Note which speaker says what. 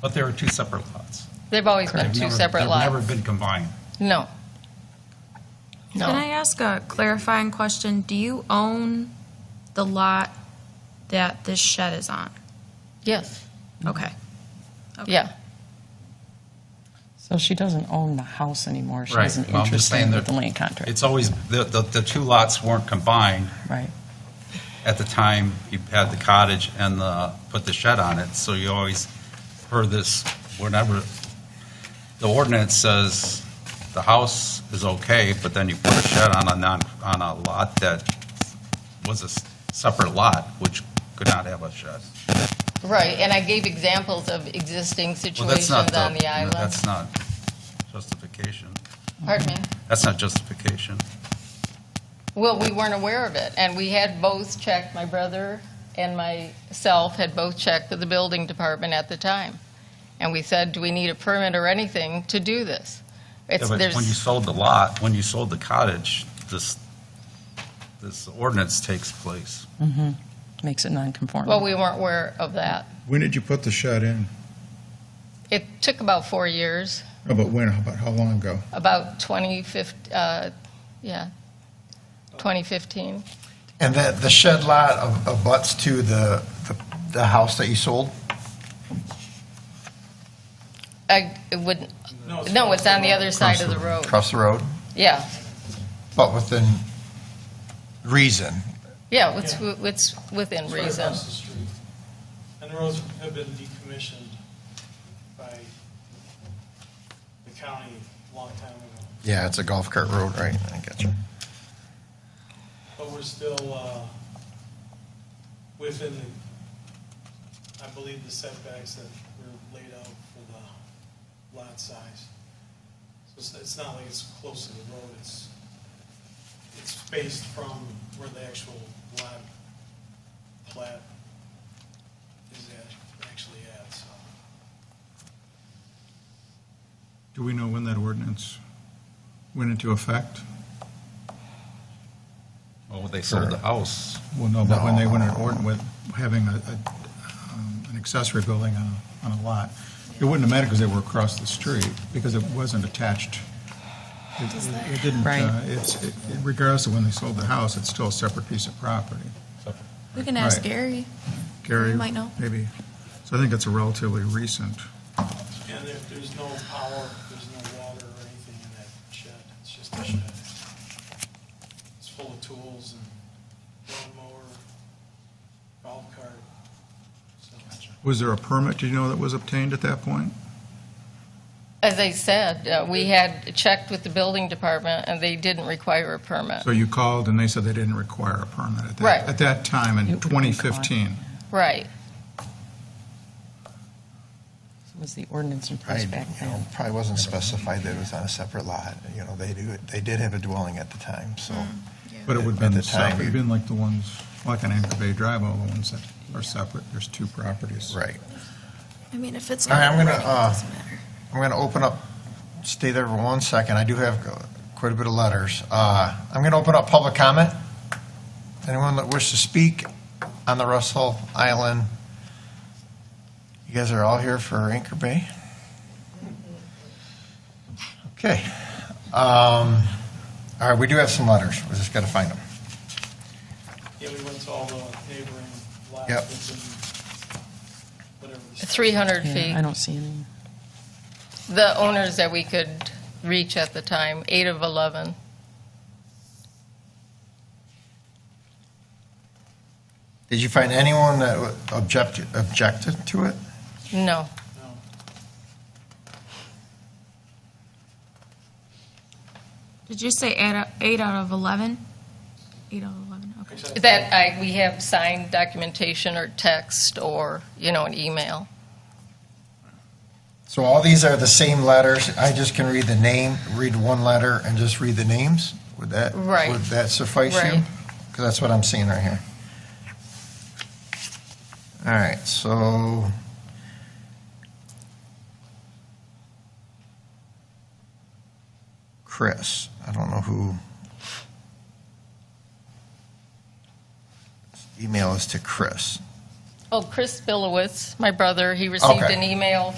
Speaker 1: But there are two separate lots.
Speaker 2: They've always been
Speaker 1: They've
Speaker 2: two
Speaker 1: never-
Speaker 2: separate
Speaker 1: They've never
Speaker 2: lots.
Speaker 1: been combined.
Speaker 2: No.
Speaker 3: Can I
Speaker 2: No.
Speaker 3: ask a clarifying question? Do you own the lot that this shed is on?
Speaker 2: Yes.
Speaker 4: Mm-hmm.
Speaker 3: Okay.
Speaker 2: Yeah.
Speaker 5: So she doesn't own the house anymore. She
Speaker 1: Right.
Speaker 5: has an
Speaker 1: Well, I'm just
Speaker 5: interest
Speaker 1: saying
Speaker 5: in
Speaker 1: that
Speaker 5: with the land contract,
Speaker 1: It's always, the, the, the two lots weren't combined
Speaker 5: right?
Speaker 1: at the time you had the cottage and the, put the shed on it, so you always heard this, whenever, the ordinance says the house is okay, but then you put a shed on a non, on a lot that was a s- separate lot, which could not have a shed.
Speaker 2: Right. And I gave examples of existing
Speaker 1: Well, that's
Speaker 2: situations
Speaker 1: not
Speaker 2: on the island.
Speaker 1: That's not justification.
Speaker 2: Pardon me?
Speaker 1: That's not justification.
Speaker 2: Well, we weren't aware of it, and we had both checked, my brother and myself had both checked with the building department at the time. And we said, do we need a permit or anything to do this?
Speaker 1: Yeah,
Speaker 2: It's,
Speaker 1: but when you
Speaker 2: there's,
Speaker 1: sold the lot, when you sold the cottage, this, this ordinance takes place.
Speaker 5: Mm-hmm. Makes it non-conforming.
Speaker 2: well, we weren't aware of that.
Speaker 6: When did you put the shed in?
Speaker 2: It took about four years,
Speaker 6: No, but when, about how long ago?
Speaker 2: about 2015, uh, yeah, 2015.
Speaker 4: And the, the shed lot ab- abuts to the, the- the house that you sold?
Speaker 2: I it wouldn't, no, it's on the other side of the road.
Speaker 4: Across the road,
Speaker 2: Yeah,
Speaker 4: but within reason.
Speaker 2: yeah, it's, it's within
Speaker 7: It's right
Speaker 2: reason.
Speaker 7: across the street. And the roads have been decommissioned by the county a long time ago.
Speaker 4: Yeah, it's a golf cart road, right? I got you.
Speaker 7: But we're still uh, within, the- I believe, the setbacks that were laid out for the lot size. So it's- it's not like it's close to the road, it's, it's spaced from where the actual lot, plat is at- actually at, so.
Speaker 6: Do we know when that ordinance went into effect?
Speaker 1: Oh, they sold the house.
Speaker 6: Well, no, but when they went in ordinance with having a, a, um, an accessory building on a, on a lot, it wouldn't have mattered because they were across the street, because it wasn't attached. It- It it didn't,
Speaker 5: Right.
Speaker 6: uh, it's, it- regardless of when they sold the house, it's still a separate piece of property.
Speaker 3: We can ask
Speaker 6: Right.
Speaker 3: Gary.
Speaker 6: Gary?
Speaker 3: You might know.
Speaker 6: Maybe. So I think it's a relatively recent.
Speaker 7: And there- there's no power, there's no water or anything in that shed, it's just a shed. It's full of tools and lawnmower, golf cart, so.
Speaker 6: Was there a permit, do you know, that was obtained at that point?
Speaker 2: As I said, uh, we had checked with the building department, and they didn't require a permit.
Speaker 6: So you called and they said they didn't require a permit at that?
Speaker 2: Right.
Speaker 6: At that time
Speaker 5: You-
Speaker 6: in 2015?
Speaker 2: Right.
Speaker 5: Was the ordinance in
Speaker 4: I,
Speaker 5: place
Speaker 4: you
Speaker 5: back
Speaker 4: know,
Speaker 5: then?
Speaker 4: probably wasn't specified that it was on a separate lot. You know, they do, they did have a dwelling at the time, so.
Speaker 6: But it would have
Speaker 4: At
Speaker 6: been
Speaker 4: the time,
Speaker 6: separate, it'd
Speaker 4: you-
Speaker 6: been like the ones, like on Anchor Bay Drive, all the ones that are separate, there's two properties.
Speaker 4: Right.
Speaker 3: I mean, if it's
Speaker 4: All
Speaker 3: not
Speaker 4: right, I'm gonna,
Speaker 3: ready, it
Speaker 4: uh,
Speaker 3: doesn't matter.
Speaker 4: I'm going to open up, stay there for one second. I do have uh, quite a bit of letters. Uh, I'm going to open up public comment. Anyone that wishes to speak on the Russell Island? You guys are all here for Anchor Bay? Okay. Um, All right, we do have some letters. We just got to find them.
Speaker 7: Yeah, we went to all the neighboring lots
Speaker 4: Yep.
Speaker 7: within whatever. the-
Speaker 2: 300
Speaker 5: Yeah, I
Speaker 2: feet.
Speaker 5: don't see any.
Speaker 2: The owners that we could reach at the time, eight of 11.
Speaker 4: Did you find anyone that objected, objected to it?
Speaker 2: No.
Speaker 7: No.
Speaker 3: Did you say eight out- eight out of 11? Eight out of 11, okay.
Speaker 7: Actually, I
Speaker 2: That I, we have signed documentation or text or, you know, an email.
Speaker 4: So all these are the same letters, I just can read the name, read one letter and just read the names? Would that,
Speaker 2: Right.
Speaker 4: would that suffice you?
Speaker 2: Right.
Speaker 4: Because that's what I'm seeing right here. All right, so. Chris, I don't know who. Email is to Chris.
Speaker 2: Oh, Chris Billowitz, my brother, he received
Speaker 4: Okay.
Speaker 2: an email